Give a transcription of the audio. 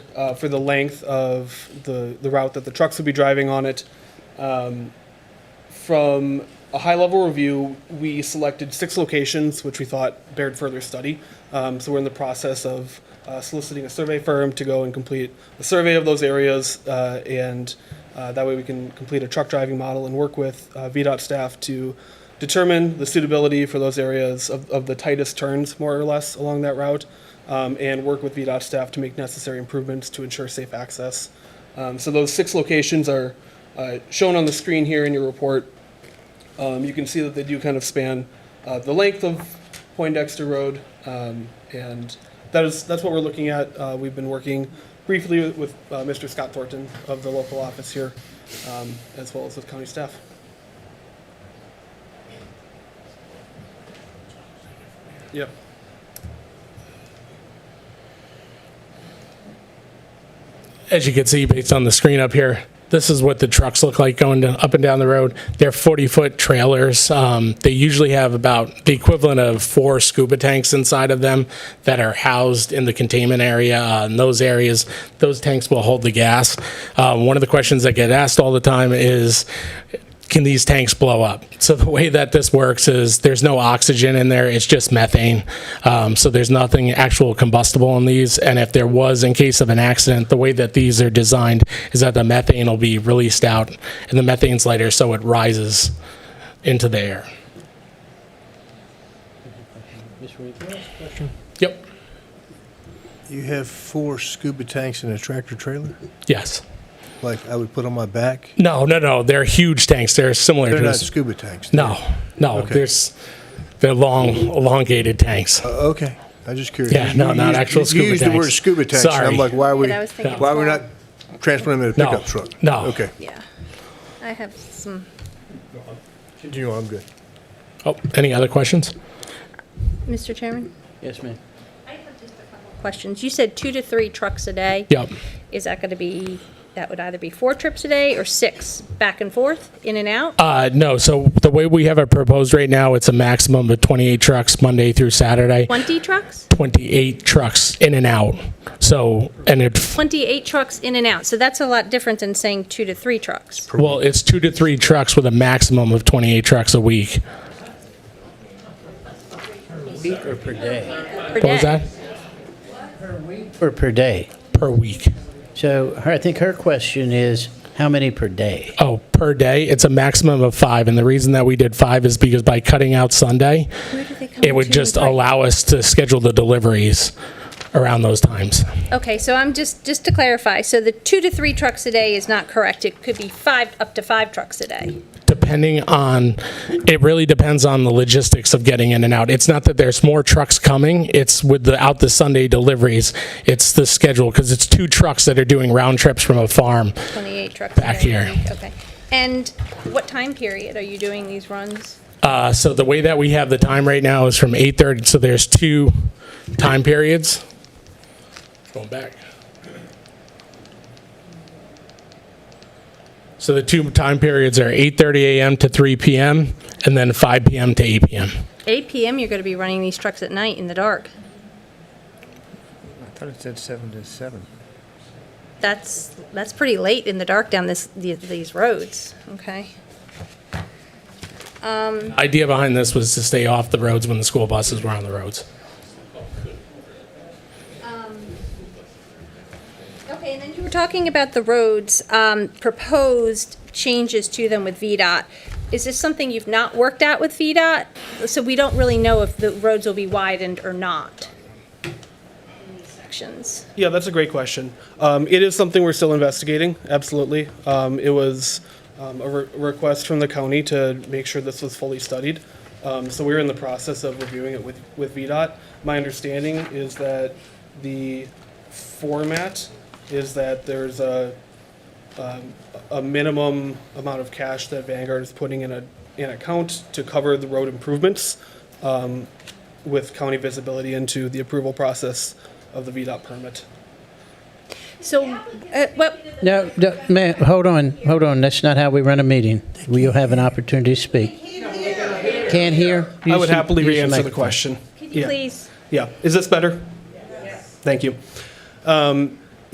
uh, for the length of the, the route that the trucks will be driving on it. Um, from a high level review, we selected six locations which we thought bared further study. Um, so we're in the process of uh, soliciting a survey firm to go and complete a survey of those areas, uh, and uh, that way we can complete a truck driving model and work with uh, VDOT staff to determine the suitability for those areas of, of the tightest turns, more or less, along that route, um, and work with VDOT staff to make necessary improvements to ensure safe access. Um, so those six locations are uh, shown on the screen here in your report. Um, you can see that they do kind of span uh, the length of Poindexter Road, um, and that is that's what we're looking at. Uh, we've been working briefly with, with uh, Mr. Scott Thornton of the local office here, um, as well as with county staff. Yep. as you can see based on the screen up here, this is what the trucks look like going down, up and down the road. They're 40 foot trailers. Um, they usually have about the equivalent of four scuba tanks inside of them that are housed in the containment area. Uh, in those areas, those tanks will hold the gas. Uh, one of the questions that get asked all the time is can these tanks blow up? So the way that this works is there's no oxygen in there; it's just methane. Um, so there's nothing actual combustible in these. And if there was, in case of an accident, the way that these are designed is that the methane will be released out, and the methane's lighter, so it rises into the air. Mr. Reed, can I ask a question? Yep. You have four scuba tanks in a tractor trailer? Yes. Like I would put on my back? No. No. No. They're huge tanks. They're similar They're to not this. scuba tanks. no. No. Okay. There's they're long, elongated tanks. Uh, okay. I'm just curious. Yeah, You- no, you not used- actual you scuba used the tanks. word scuba tanks. and Sorry. I'm like, why are we, Yeah, I was thinking why are we twelve. not transporting them in a No. pickup truck? No. Okay. Yeah, I have some, You know, I'm good. Oh, any other questions? Mr. Chairman, Yes, ma'am. questions. You said two to three trucks a day. Yep. Is that gonna be, that would either be four trips a day or six, back and forth, in and out? Uh, no, so the way we have it proposed right now, it's a maximum of 28 trucks Monday through Saturday, Twenty trucks? 28 trucks in and out. So, and it, Twenty-eight trucks in and out, so that's a lot different than saying two to three trucks. well, it's two to three trucks with a maximum of 28 trucks a week. Week or per day? What What was that? Or per day. Per week. So her, I think her question is, how many per day? Oh, per day, it's a maximum of five. And the reason that we did five is because by cutting out Sunday, it would just allow us to schedule the deliveries around those times. Okay, so I'm just, just to clarify, so the two to three trucks a day is not correct. It could be five, up to five trucks a day. depending on it really depends on the logistics of getting in and out it's not that there's more trucks coming it's with the out the sunday deliveries it's the schedule because it's two trucks that are doing round trips from a farm 28 trucks. Back a day a here. week, Okay. And what time period are you doing these runs? uh, so the way that we have the time right now is from 8.30 so there's two time periods going back so the two time periods are 8.30 a.m to 3 p.m and then 5 p.m to 8 p.m 8 PM, you're going to be running these trucks at night in the dark. I thought it said seven to seven. That's, that's pretty late in the dark down this, the- these roads, okay? idea behind this was to stay off the roads when the school buses were on the roads. Okay, and then you were talking about the roads, um, proposed changes to them with VDOT. Is this something you've not worked out with VDOT? So we don't really know if the roads will be widened or not in these sections. Yeah, that's a great question. Um, it is something we're still investigating, absolutely. Um, it was um, a re- request from the county to make sure this was fully studied. Um, so we're in the process of reviewing it with, with VDOT. My understanding is that the format is that there's a, um, a minimum amount of cash that Vanguard is putting in a, an account to cover the road improvements um, with county visibility into the approval process of the VDOT permit. So, uh, what, No, no, ma'am, hold on, hold on. That's not how we run a meeting. Will you have an opportunity to speak? Can't hear? I Use would the- happily use the re-answer the microphone. question. could you Yeah. please? Yeah, is this better? Yes. Thank you. Um,